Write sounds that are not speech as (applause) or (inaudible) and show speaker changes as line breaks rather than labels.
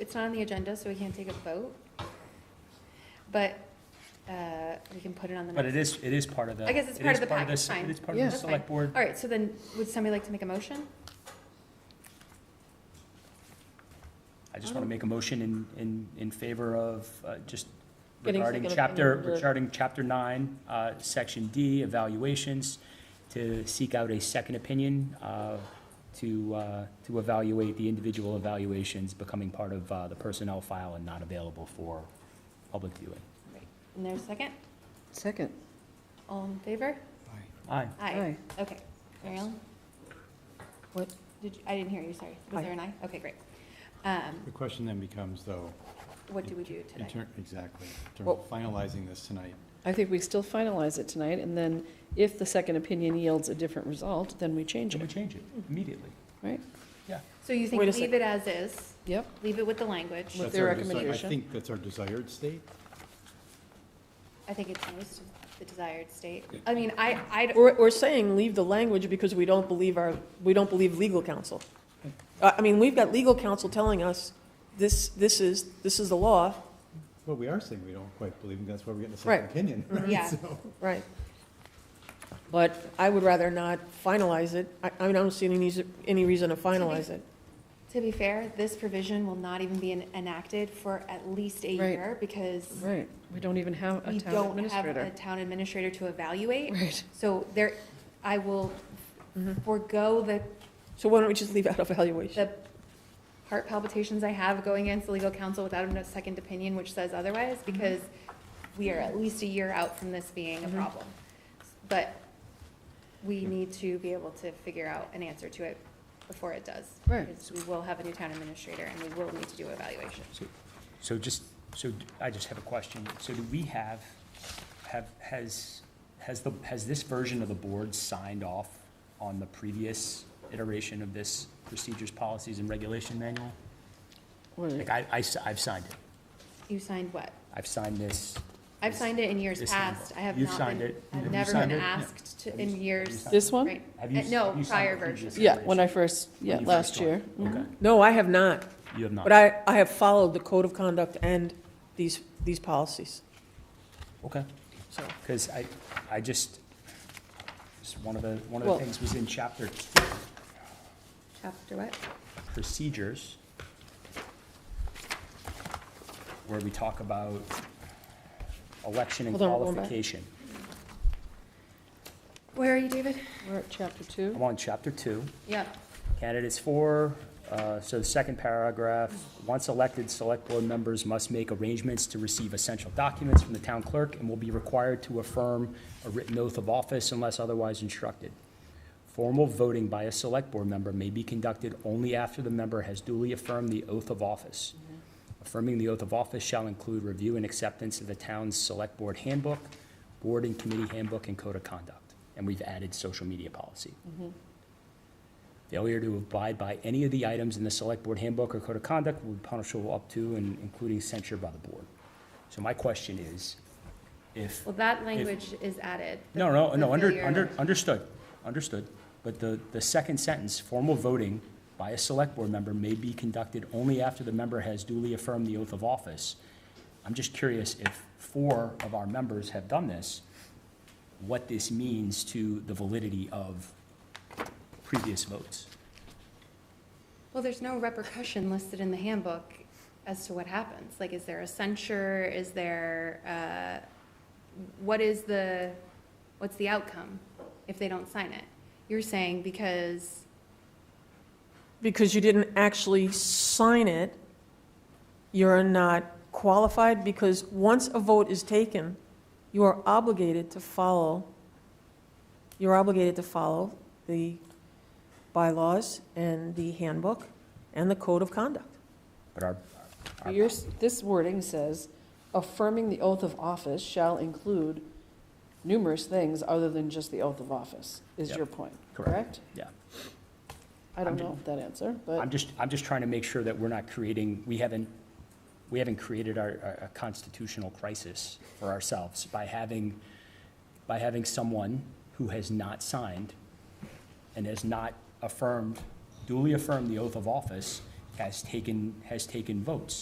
it's not on the agenda, so we can't take a vote. But, uh, we can put it on the
But
next.
it is, it is part of the.
I guess it's
it
part
is
of the package,
se-
fine.
It is part of the
Yeah.
That's fine.
select board.
All right, so then, would somebody like to make a motion?
I just want to make a motion in, in, in favor of, uh, just
Getting
regarding
second
chapter,
opinion, the-
regarding chapter nine, uh, section D, evaluations, to seek out a second opinion, uh, to, uh, to evaluate the individual evaluations becoming part of, uh, the personnel file and not available for public viewing.
And there's a second?
Second.
All in favor?
Aye.
Aye. Okay. Mary Ellen?
What?
Did you, I didn't hear you, sorry. Was
Aye.
there an aye? Okay, great. Um,
The question then becomes, though,
what do we do
in
today?
turn, exactly, in terms
Well-
of finalizing this tonight,
I think we still finalize it tonight, and then if the second opinion yields a different result, then we change
Can we
it.
change it immediately?
So you think
Wait a
leave it as is,
Yep,
leave it with the language?
With
that's
their
our desi-
recommendation.
I think that's our desired state.
I think it's most of the desired state. I mean, I, I, d-
We're, we're saying leave the language because we don't believe our, we don't believe legal counsel. I, I mean, we've got legal counsel telling us, this, this is, this is the law.
Well, we are saying we don't quite believe, and that's why we're getting a
Right.
second opinion.
Mm-hmm.
Yeah.
(laughs) So-
Right. But I would rather not finalize it. I, I mean, I don't see any, reason- any reason to finalize it.
to be fair, this provision will not even be en- enacted for at least a
Right.
year because
right. We don't even have a
we
town
don't have a
administrator.
town administrator to evaluate.
Right.
So there, I will
Mm-hmm.
forego the,
So why don't we just leave out evaluation?
the heart palpitations I have going against the legal counsel without a second opinion, which says otherwise,
Mm-hmm.
because we are at least a year out from this being
Mm-hmm.
a problem. But we need to be able to figure out an answer to it before it does.
Right.
Because we will have a new town administrator and we will need to do evaluation.
So, so just, so d- I just have a question. So do we have, have, has, has the, has this version of the board signed off on the previous iteration of this procedures, policies, and regulation manual? Like,
Right.
I, I, have signed it.
You signed what?
I've signed this.
I've
this-
signed it in years
This-
past. I have
You've
not
signed
been,
it. Have
I've
you
never
signed
been
it? Yeah.
asked to,
Have you-
in
have you
years.
signed
This one?
Right.
Have you
Uh,
s-
No,
you signed
prior
the previous
version.
Yeah, when I
iteration?
first,
When
yeah,
you first
last year.
joined.
Mhm.
Okay,
No, I have not,
you have not.
but I, I have followed the code of conduct and these, these policies,
Okay.
so.
Because I, I just, just one of the, one of
Well-
the things was in chapter
Chapter what?
procedures where we talk about election and
Hold on, we're going back.
qualification.
Where are you, David?
We're at chapter
I'm
two.
on chapter two,
Yeah.
candidates for, uh, so the second paragraph, once elected, select board members must make arrangements to receive essential documents from the town clerk and will be required to affirm a written oath of office unless otherwise instructed. Formal voting by a select board member may be conducted only after the member has duly affirmed the oath of office. Affirming the oath of office shall include review and acceptance of the town's select board handbook, board and committee handbook, and code of conduct. And we've added social media policy. Failure to abide by any of the items in the select board handbook or code of conduct will be punishable up to and including censure by the board. So my question is, if.
Well, that language is added. The-
No, no,
the
no, under,
failure-
under, understood, understood. But the, the second sentence, formal voting by a select board member may be conducted only after the member has duly affirmed the oath of office. I'm just curious if four of our members have done this, what this means to the validity of previous votes.
Well, there's no repercussion listed in the handbook as to what happens. Like, is there a censure? Is there, uh, what is the, what's the outcome if they don't sign it? You're saying because,
because you didn't actually sign it, you're not qualified, because once a vote is taken, you are obligated to follow, you're obligated to follow the bylaws and the handbook and the code of conduct.
But our, our,
Your, this wording says, affirming the oath of office shall include numerous things other than just the oath of office, is
Yep.
your point,
Correct.
correct?
yeah.
I don't
I'm-
know that answer,
I'm
but,
just, I'm just trying to make sure that we're not creating, we haven't, we haven't created our, our- a constitutional crisis for ourselves by having, by having someone who has not signed and has not affirmed, duly affirmed the oath of office, has taken, has taken votes.